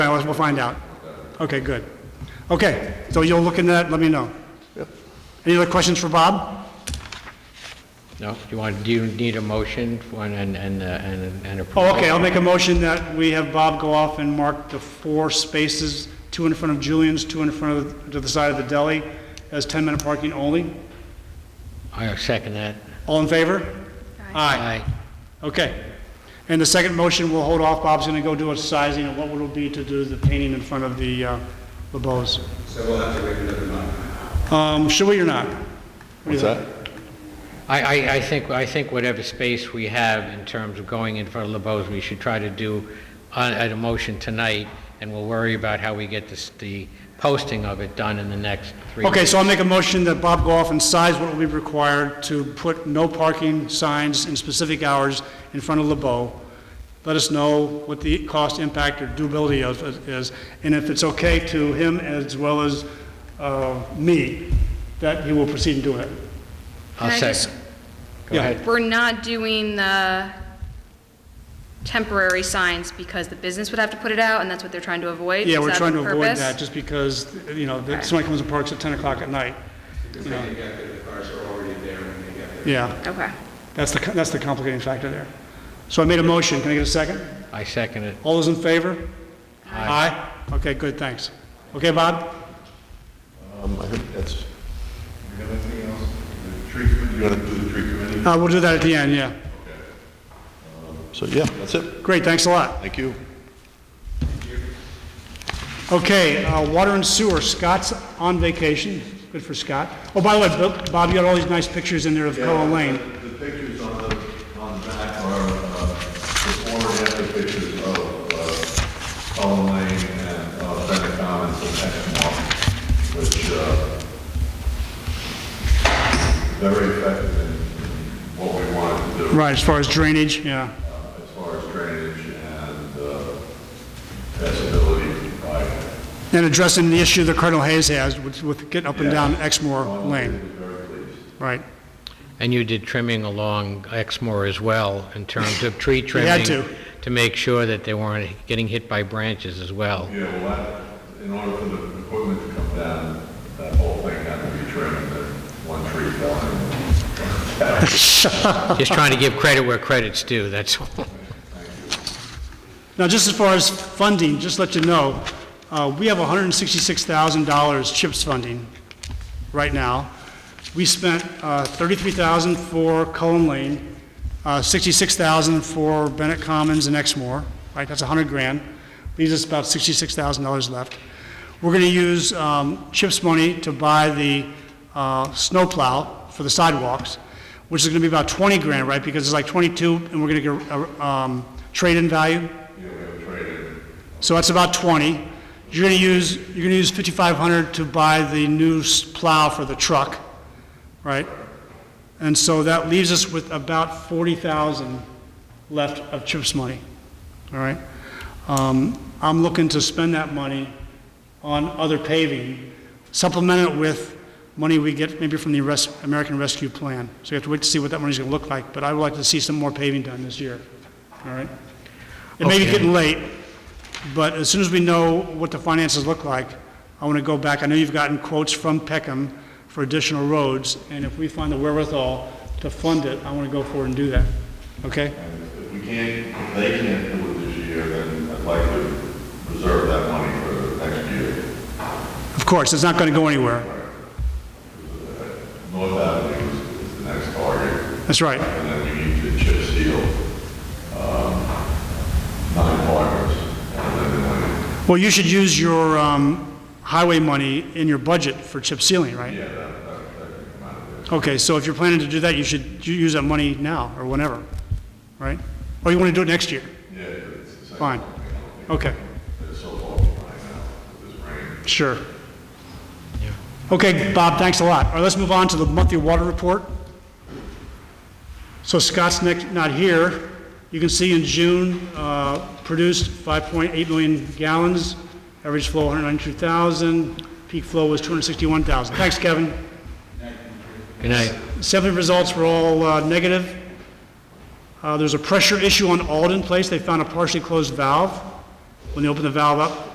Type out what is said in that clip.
hours, we'll find out. Okay, good. Okay, so you'll look into that, let me know. Any other questions for Bob? No, do you want, do you need a motion for, and, and, and, uh, and and approval? Oh, okay, I'll make a motion that we have Bob go off and mark the four spaces, two in front of Julian's, two in front of, to the side of the deli, as 10-minute parking only. I second that. All in favor? Aye. Okay. And the second motion, we'll hold off, Bob's gonna go do a sizing and what would it be to do the painting in front of the, uh, LeBeau's. So we'll have to wait another month. Um, should we or not? What's that? I, I, I think, I think whatever space we have in terms of going in front of LeBeau's, we should try to do on, at a motion tonight, and we'll worry about how we get this, the posting of it done in the next three. Okay, weeks. so I'll make a motion that Bob go off and size what will be required to put no parking signs in specific hours in front of LeBeau. Let us know what the cost impact or doability of, is, and if it's okay to him as well as, uh, me, that he will proceed in doing it. I'll Can I just- second. Go Yeah. ahead. We're not doing the temporary signs because the business would have to put it out, and that's what they're trying to avoid? Yeah, Is we're that trying to the avoid purpose? that, just because, you know, that somebody comes and parks at 10 o'clock at night. you know. Yeah, Okay. that's the, that's the complicating factor there. So I made a motion, can I get a second? I second it. All those in favor? Aye. Okay, good, thanks. Okay, Bob? Um, I think that's, You got anything else? The tree committee, you want to do the tree committee? Uh, We'll do that at the end, yeah. so yeah, that's it. Great, thanks a lot. Thank you. Okay, uh, water and sewer, Scott's on vacation, good for Scott. Oh, by the way, Bo- Bob, you got all these nice pictures in there of Coa Lane. The the pictures on the, on the back are uh, before and after pictures of Cullen Lane and uh, Bennett Commons and Hexmore, which uh very effective in in what we wanted to do. Right, as far as drainage, yeah. as far as drainage and uh, passability by, And addressing the issue that Colonel Hayes has with- with getting up and down Exmoor Lane, very pleased. right. And you did trimming along Exmoor as well, in terms of tree trimming. had to. To make sure that they weren't getting hit by branches as well. Yeah, well, that, in order for the equipment to come down, that whole thing had to be trimmed, that one tree fell in. Just trying to give credit where credit's due, that's all. Now, just as far as funding, just to let you know, uh, we have $166,000 CHIPS funding right now. We spent uh, $33,000 for Cullen Lane, uh, $66,000 for Bennett Commons and Exmoor, right? That's 100 grand. Leaves us about $66,000 left. We're going to use um, CHIPS money to buy the uh, snowplow for the sidewalks, which is going to be about 20 grand, right? Because it's like 22, and we're going to get a um, trade-in value. So that's about 20. You're going to use, you're going to use 5,500 to buy the new s- plow for the truck, right? And so that leaves us with about 40,000 left of CHIPS money, all right? Um, I'm looking to spend that money on other paving, supplement it with money we get maybe from the res- American Rescue Plan. So you have to wait to see what that money's going to look like, but I would like to see some more paving done this year, all right? It may be Okay. getting late, but as soon as we know what the finances look like, I want to go back, I know you've gotten quotes from Peckham for additional roads, and if we find the wherewithal to fund it, I want to go forward and do that, okay? And if we can't, if they can't do it this year, then I'd like to reserve that money for next year. Of course, it's not going to go anywhere, North Avenue is- is the next target, that's right. and then we need to chip seal um, nine partners, and then when, Well, you should use your um, highway money in your budget for chip sealing, right? yeah, that, that, that can come out of there. Okay, so if you're planning to do that, you should u- use that money now, or whenever, right? Or you want to do it next year? Yeah, it's the same. Fine. Okay, It's so awful right now with this rain. sure. Okay, Bob, thanks a lot. All right, let's move on to the monthly water report. So Scott's next, not here. You can see in June, uh, produced 5.8 million gallons, average flow 192,000, peak flow was 261,000. Thanks, Kevin. Good night. Assembly results were all uh, negative. Uh, There's a pressure issue on Alden Place. They found a partially closed valve. When they opened the valve up,